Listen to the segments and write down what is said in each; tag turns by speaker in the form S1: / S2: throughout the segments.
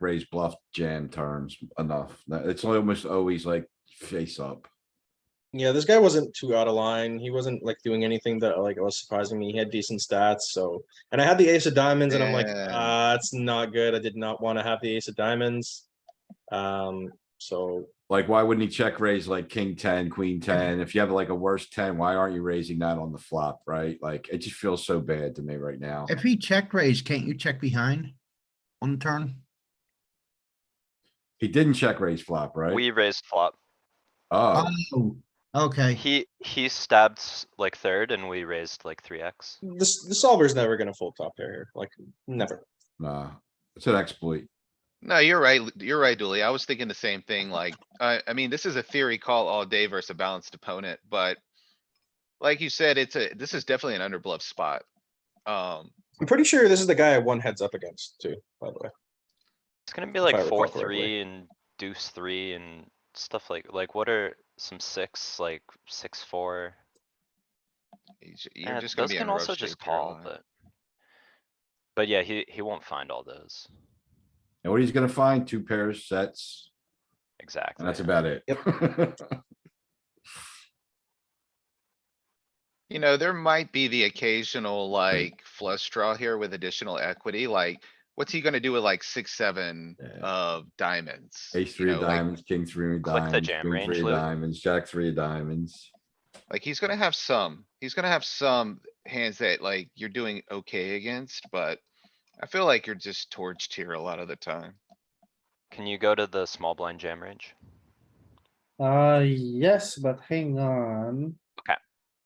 S1: raise bluff jam turns enough. No, It's almost always like face up.
S2: Yeah, this guy wasn't too out of line. He wasn't like doing anything that like was surprising me. He had decent stats, so and I had the ace of diamonds, and I'm like,
S3: Yeah.
S2: ah, it's not good. I did not want to have the ace of diamonds. Um, so
S1: Like, why wouldn't he check raise like king ten, queen ten? If you have like a worse ten, why aren't you raising that on the flop, right? Like, it just feels so bad to me right now.
S3: If he check raise, can't you check behind on the turn?
S1: He didn't check raise flop, right?
S4: We raised flop.
S1: Oh,
S3: Oh, okay.
S4: He, he stabbed s- like third and we raised like three X.
S2: this the solver's never gonna full top pair here, like never.
S1: nah, it's an exploit.
S5: No, you're right. Lu- You're right, Dooley. I was thinking the same thing, like, I, I mean, this is a theory call all day versus a balanced opponent, but. Like you said, it's a, this is definitely an under bluff spot. Um,
S2: I'm pretty sure this is the guy I won heads up against too. By the way,
S4: It's gonna be
S2: I
S4: like
S2: recall
S4: four,
S2: correctly.
S4: three and deuce three and stuff like, like what are some six, like six, four?
S5: you ju-
S4: Eh,
S5: you're just gonna
S4: Those
S5: be
S4: can
S5: on
S4: also
S5: rough
S4: just
S5: shape.
S4: call,
S5: here.
S4: but. But yeah, he, he won't find all those.
S1: And what he's gonna find, two pairs, sets,
S4: Exactly.
S1: and that's about it.
S5: You know, there might be the occasional like flush draw here with additional equity, like, what's he gonna do with like six, seven
S1: Yeah.
S4: Uh,
S5: of diamonds?
S1: Ace
S5: you
S1: three
S5: know,
S1: of
S5: like-
S1: diamonds, king three of
S4: Click the
S1: diamonds,
S4: jam
S1: queen
S4: range,
S1: three of
S4: Lou.
S1: diamonds, jack three of diamonds.
S5: Like, he's gonna have some, he's gonna have some hands that like you're doing okay against, but. I feel like you're just torched here a lot of the time.
S4: Can you go to the small blind jam range?
S6: Uh, yes, but hang on.
S4: Okay.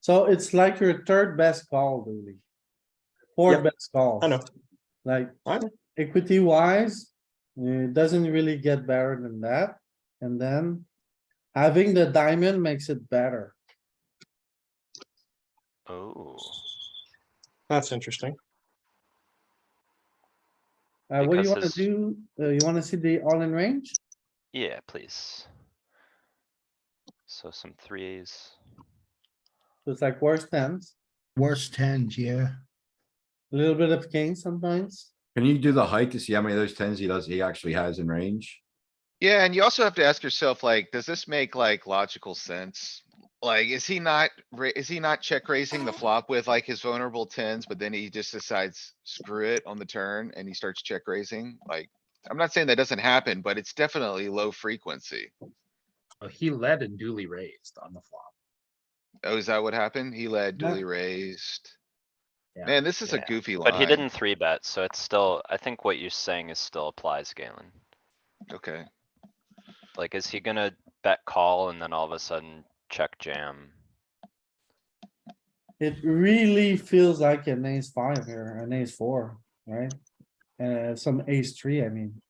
S6: So it's like your third best call, really.
S2: Yep.
S6: Fourth best call.
S2: I know.
S6: Like,
S2: I know.
S6: equity wise, it doesn't really get better than that. And then having the diamond makes it better.
S4: Oh,
S2: that's interesting.
S6: Uh, what do
S4: Because
S6: you wanna
S4: his-
S6: do? Uh, you wanna see the all-in range?
S4: yeah, please. So some threes.
S6: So It's like worse tens,
S3: Worst tens, yeah.
S6: a little bit of king sometimes.
S1: Can you do the height to see how many of those tens he does, he actually has in range?
S5: Yeah, and you also have to ask yourself, like, does this make like logical sense? Like, is he not, ra- is he not check raising the flop with like his vulnerable tens, but then he just decides screw it on the turn and he starts check raising? Like, I'm not saying that doesn't happen, but it's definitely low frequency.
S7: Oh, he led and duly raised on the flop.
S5: Oh, is that what happened? He led
S6: Yeah.
S5: duly raised.
S7: Yeah.
S5: Man, this is a
S4: Yeah.
S5: goofy line.
S4: But he didn't three bet, so it's still, I think what you're saying is still applies, Galen.
S5: Okay,
S4: Like, is he gonna bet call and then all of a sudden check jam?
S6: It really feels like an ace five here, an ace four, right? Uh, some ace three, I mean.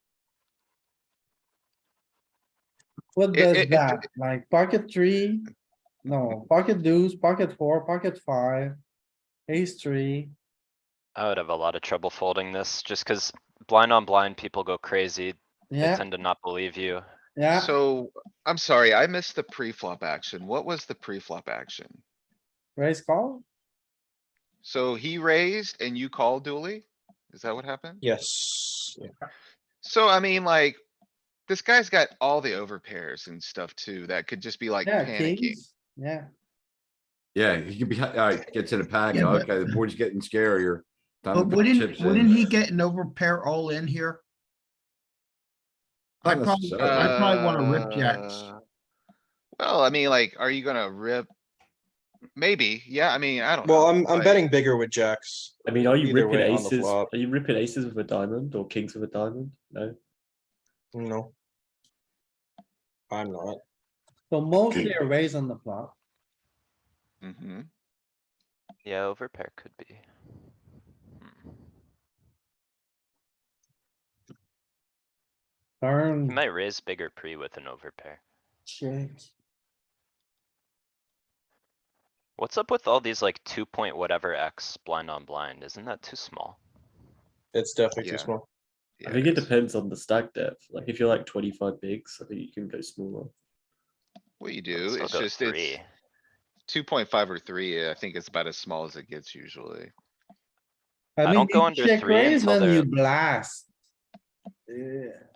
S6: What
S5: It- it-
S6: does
S5: it-
S6: that, like pocket three? No, pocket deuce, pocket four, pocket five, ace three.
S4: I would have a lot of trouble folding this, just cuz blind on blind, people go crazy. They
S6: Yeah,
S4: tend to not believe you.
S2: Uh,
S6: yeah,
S5: so I'm sorry, I missed the pre-flop action. What was the pre-flop action?
S6: raise call.
S5: So he raised and you called duly? Is that what happened?
S2: Yes. Yeah.
S5: So I mean, like, this guy's got all the overpairs and stuff too, that could just be like
S6: Yeah,
S5: panicking.
S6: kings. Yeah,
S1: Yeah, he could be, alright, gets in a pack,
S3: Yeah, but-
S1: okay, the board's getting scarier. Time to
S3: But
S1: put
S3: wouldn't,
S1: chips in.
S3: wouldn't he get an overpair all in here? I
S1: Not
S3: probably,
S1: necessarily.
S3: I probably wanna rip jacks.
S5: Uh, Well, I mean, like, are you gonna rip? Maybe, yeah, I mean, I don't know.
S2: Well, I'm I'm
S5: like,
S2: betting bigger with jacks.
S8: I mean, are you
S2: Either
S8: ripping
S2: way, on the
S8: aces? Are
S2: flop.
S8: you ripping aces with a diamond or kings with a diamond? No.
S2: No. I'm not.
S6: so mostly a raise on the flop.
S5: mhm.
S4: Yeah, overpair could be. Hmm. He
S6: Turn,
S4: might raise bigger pre with an overpair.
S6: check.
S4: What's up with all these like two point whatever X blind on blind? Isn't that too small?
S2: It's definitely
S5: Yeah.
S2: too small.
S5: Yeah,
S8: I think it
S5: it's-
S8: depends on the stack depth. Like if you're like 25 bigs, I think you can go smaller.
S5: What you
S4: Let's
S5: do,
S4: still
S5: it's
S4: go
S5: just,
S4: three.
S5: it's two point five or three, I think it's about as small as it gets usually.
S4: I
S6: mean,
S4: don't go
S6: you
S4: under
S6: check
S4: three
S6: raise,
S4: until
S6: then
S4: they're-
S6: You blast. Yeah.